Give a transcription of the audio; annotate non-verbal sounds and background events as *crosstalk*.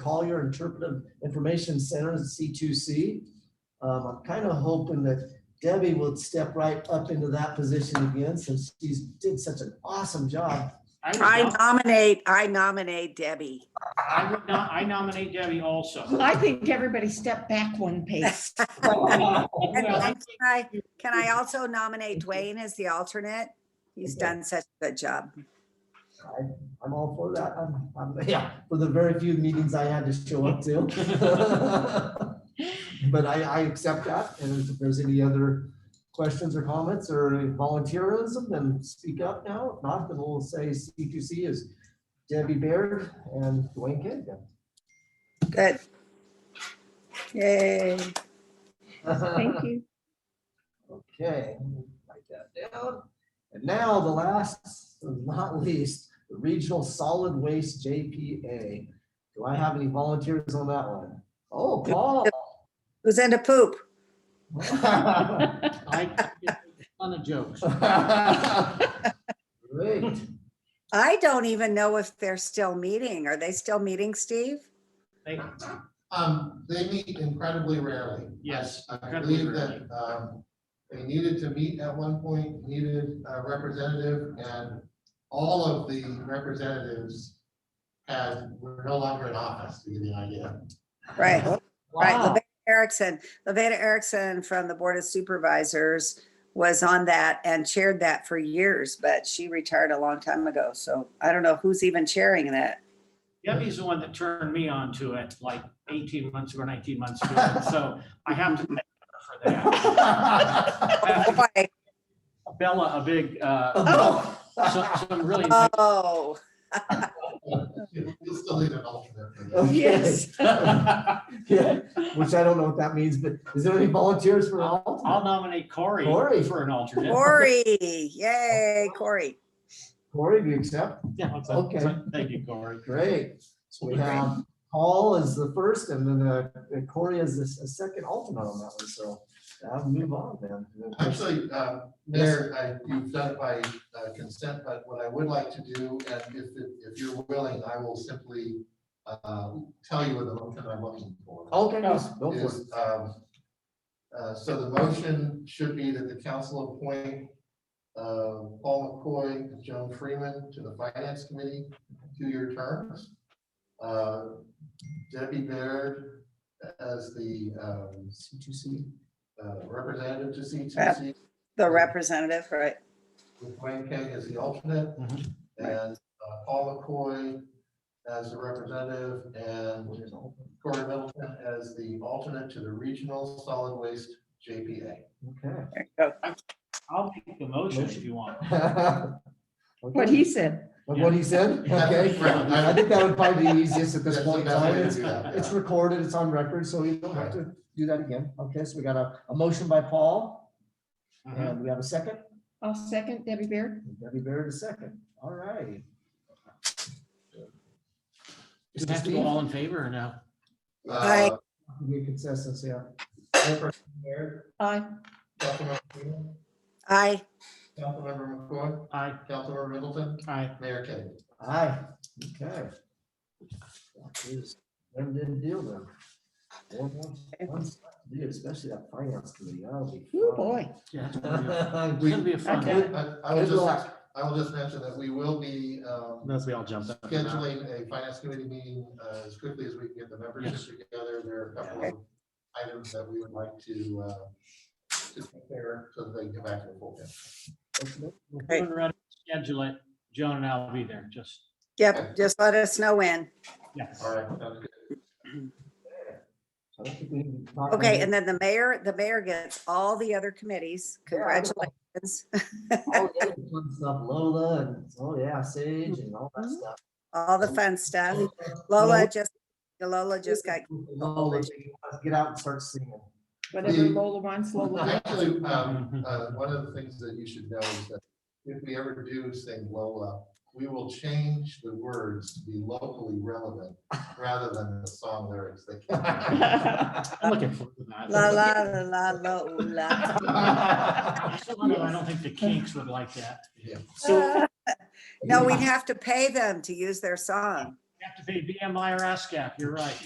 Collier Interpretive Information Center, C2C. Um, I'm kind of hoping that Debbie will step right up into that position again since she's did such an awesome job. I I would nom- nominate, I nominate Debbie. I would nom- I nominate Debbie also. *laughs* I think everybody step back one pace. And *laughs* Well, I Can think I- can I also nominate Dwayne as the alternate? He's done such a good job. I'm all for that. I'm, I'm, yeah, for the very few meetings I had to show up to. But I, I accept that. And if there's any other questions or comments or volunteerism, then speak up now. If not, then we'll say C2C is Debbie Baird and Dwayne Kid. Good. Yay. *laughs* Thank you. Okay, let me write that down. And now the last, but not least, the Regional Solid Waste JPA. Do I have any volunteers on that one? Oh, Paul. *laughs* Who's into poop? *laughs* I- Ton of jokes. Great. I don't even know if they're still meeting. Are they still meeting, Steve? They- Um, they meet incredibly rarely. Yes, I incredibly believe that, um, they needed to meet at one point, needed a representative, and all of the representatives had, were no longer in office, to give you an idea. Right, right. Wow. Levada Erickson, Levada Erickson from the Board of Supervisors was on that and chaired that for years, but she retired a long time ago. So I don't know who's even chairing that. Debbie's the one that turned me on to it like 18 months ago, 19 months ago. So I have to thank her for that. *laughs* I have to Oh, Boy, give Bella a big, uh, Oh. some some really *laughs* nice *laughs* Oh. You still need an alternate for that. Okay. Yes. Yeah, Which I don't know what that means, but is there any volunteers for I'll all? nominate Corey Corey. for an alternate. Corey, yay, Corey. Corey, do you accept? Yeah, that's- Okay. that's- Thank you, Corey. Great. So we have Paul as the first and then uh, Corey as the s- the second alternate on that one. So I'll move on *laughs* then. Actually, uh, Mayor, I- you've done it by uh, consent, but what I would like to do, and if, if you're willing, I will simply um, tell you what the motion I'm looking for. Okay, yes, go for it. is, um, uh, so the motion should be that the council appoint, uh, Paul McCoy and Joan Freeman to the finance committee, two-year terms. Uh, Debbie Baird as the, um, C2C. uh, representative to CTC, The representative, right? with Wayne King as the alternate, Mhm. and uh, Paul McCoy as the representative, and Corey Middleton as the alternate to the Regional Solid Waste JPA. Okay. There you go. I'll make the motion if you want. *laughs* What Okay. he said. Of What he said? Yeah. Okay. *laughs* Right. I think that would probably be the easiest at this That's the point in best way time. to It's- do that, It's yeah. recorded, it's on record, so you don't have to do that again. Okay, so we got a, a motion by Paul Mm-hmm. Uh-huh. and we have a second. I'll second Debbie Baird. Debbie Baird a second. All right. Do you have to go all in favor or no? Aye. Uh, Be consensus, yeah. Mayor, Aye. Councilmember Freeman, Aye, Councilmember McCoy, Aye, Councilmember Middleton, aye. Mayor King. Aye, okay. That is, them didn't deal them. Dude, especially that finance committee, that'll be. Oh, fun. *laughs* boy. Yeah, *laughs* it's gonna be a- it's We- gonna be a fun. Okay. I I will Good just, luck. I will just mention that we will be um, Unless we all jump up. and down. scheduling a finance committee meeting uh, as quickly as we can get the members together. There are a couple of items that we would like to uh, to prepare so that they can come back to the full. council. We'll put it around, Schedule it. Joan and I will be there, just, yep, just let us know when. yes. All right, sounds good. I don't think we need to talk Okay, about and then the mayor, the mayor gets all the other committies. Congratulations, *laughs* all the other fun Stuff, Lola, and, oh yeah, Sage and all Mm-hmm. that stuff. all the fun stuff. Lola just, Lola just got, Lola, she wants to Get out and start singing. Whatever Lola wants, Lola. Actually, *laughs* um, uh, one of the things that you should know is that if we ever do sing Lola, we will change the words to be locally relevant rather than the song lyrics. They can't- I'm looking forward to that. la, la, la, la, la, ooh, la. *laughs* *laughs* I still don't know, I don't think the kinks would like that. Yeah. So, *laughs* No, we'd have to pay them to use their song. have to pay BMI or ASCAP, you're right.